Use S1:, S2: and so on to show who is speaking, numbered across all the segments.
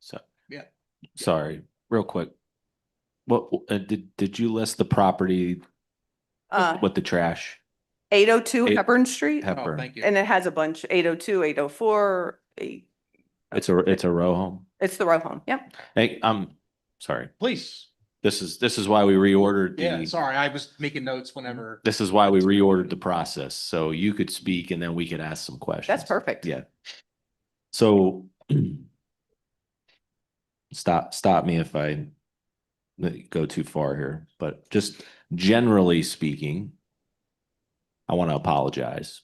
S1: So.
S2: Yeah.
S1: Sorry, real quick. What, uh, did, did you list the property
S3: Uh,
S1: with the trash?
S3: eight oh two
S1: eight-
S3: Hepburn Street,
S2: Oh,
S1: Hepburn?
S2: thank you.
S3: and it has a bunch, 802, 804. eight-
S1: It's a, it's a row home.
S3: It's the row home, yep.
S1: Hey, I'm sorry.
S2: Please.
S1: This is, this is why we reordered
S2: Yeah,
S1: the,
S2: sorry, I was making notes whenever.
S1: this is why we reordered the process. So you could speak and then we could ask some questions.
S3: That's perfect.
S1: Yeah. So stop, stop me if I go too far here, but just generally speaking, I want to apologize.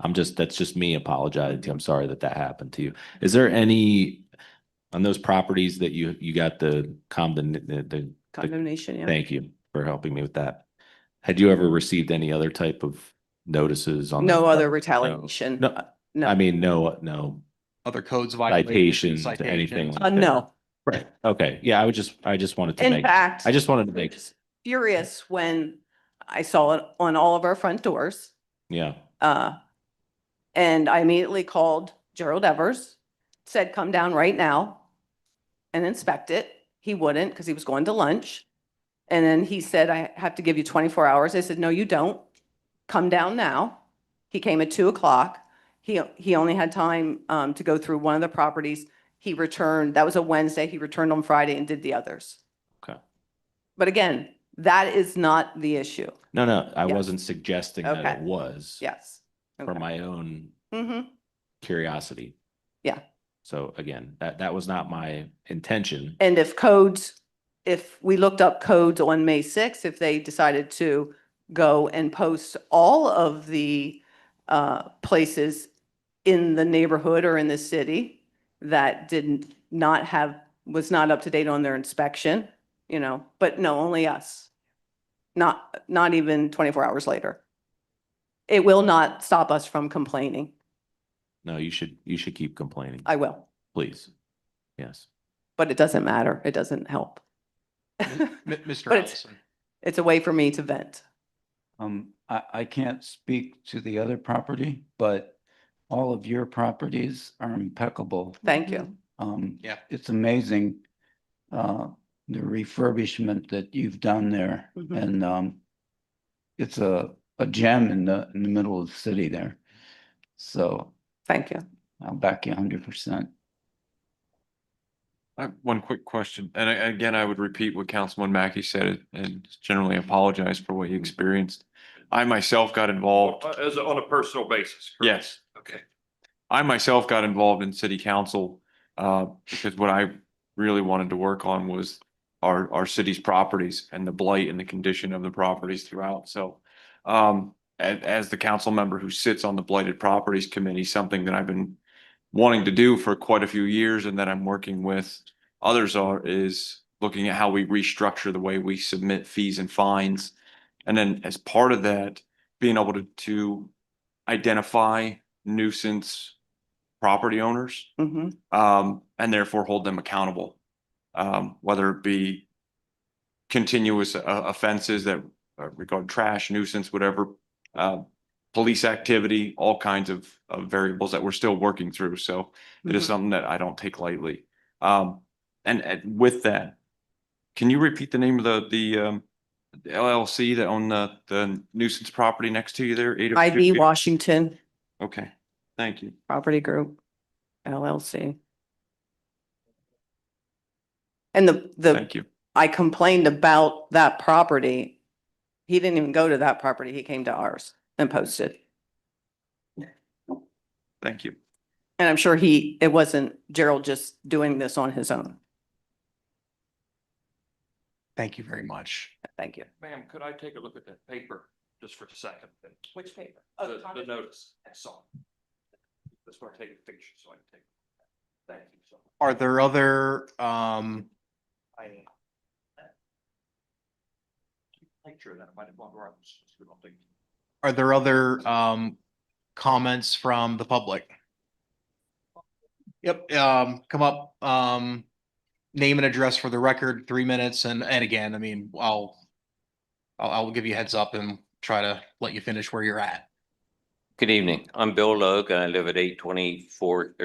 S1: I'm just, that's just me apologizing. I'm sorry that that happened to you. Is there any on those properties that you, you got the condemn, the, the
S3: Condemnation, yeah.
S1: Thank you for helping me with that. Had you ever received any other type of notices on?
S3: No
S1: the-
S3: other retaliation.
S1: No, I- I mean, no, no
S2: Other codes
S1: citations,
S2: violations.
S1: anything. like
S3: Uh,
S1: that.
S3: no.
S1: Right, okay, yeah, I would just, I just wanted to
S3: In
S1: make,
S3: fact.
S1: I just wanted to make,
S3: Furious when I saw it on all of our front doors.
S1: yeah,
S3: Uh, and I immediately called Gerald Evers, said, come down right now and inspect it. He wouldn't because he was going to lunch. And then he said, I have to give you twenty-four hours. I said, no, you don't. Come down now. He came at two o'clock. He, he only had time, um, to go through one of the properties. He returned, that was a Wednesday. He returned on Friday and did the others.
S1: Okay.
S3: But again, that is not the issue.
S1: no, no, I
S3: Yes.
S1: wasn't suggesting that it
S3: Okay.
S1: was.
S3: Yes.
S1: For my own
S3: Mm-hmm.
S1: curiosity.
S3: Yeah.
S1: So again, that, that was not my intention,
S3: And if codes, if we looked up codes on May sixth, if they decided to go and post all of the uh, places in the neighborhood or in the city that didn't not have, was not up to date on their inspection, you know, but no, only us. Not, not even twenty-four hours later. It will not stop us from complaining.
S1: no, you should, you should keep complaining,
S3: I will,
S1: please, yes.
S3: but it doesn't matter. It doesn't help.
S2: M- Mr.
S3: But it's-
S2: Allison,
S3: It's a way for me to vent.
S4: Um, I, I can't speak to the other property, but all of your properties are impeccable.
S3: Thank you.
S4: Um,
S2: Yeah.
S4: It's amazing, uh, the refurbishment that you've done there
S3: Mhm.
S4: and, um, it's a, a gem in the, in the middle of the city there. So
S3: Thank you.
S4: I'll back you hundred percent.
S5: I have one quick question, and I- again, I would repeat what Councilman Mackey said and generally apologize for what he experienced. I myself got involved,
S6: Uh, As, a- on a personal basis? correct?
S5: yes,
S6: Okay.
S5: I myself got involved in city council. Uh, because what I really wanted to work on was our, our city's properties and the blight and the condition of the properties throughout, so. Um, as, as the council member who sits on the blighted properties committee, something that I've been wanting to do for quite a few years and that I'm working with Others are is looking at how we restructure the way we submit fees and fines. And then as part of that, being able to, to identify nuisance property owners,
S3: hmm
S5: um, and therefore hold them accountable. Um, whether it be continuous uh, offenses that uh, regard trash, nuisance, whatever, uh, police activity, all kinds of, of variables that we're still working through. So it
S3: Mm-hmm.
S5: is something that I don't take lightly. Um, and, and with that, can you repeat the name of the, the, um, LLC that owned the, the nuisance property next to you there? 802?
S3: IB Washington
S5: Okay, thank you.
S3: Property Group LLC. And the, the,
S5: Thank you.
S3: I complained about that property. He didn't even go to that property. He came to ours and posted.
S5: Thank you.
S3: And I'm sure he, it wasn't Gerald just doing this on his own.
S2: thank you very much.
S3: Thank you.
S6: Ma'am, could I take a look at that paper just for a second? then?
S3: Which paper? Oh,
S6: The, the notice, I saw. it. That's why I take a picture, so I can take. it. Thank you so much.
S2: Are there other, um,
S6: I- Picture of that, I might have gone wrong. It's good, I'll take it.
S2: are there other, um, comments from the public? Yep, um, come up, um, name and address for the record, three minutes, and, and again, I mean, I'll, I'll, I'll give you a heads up and try to let you finish where you're at.
S7: Good evening. I'm Bill Logue. and I live at eight twenty-four,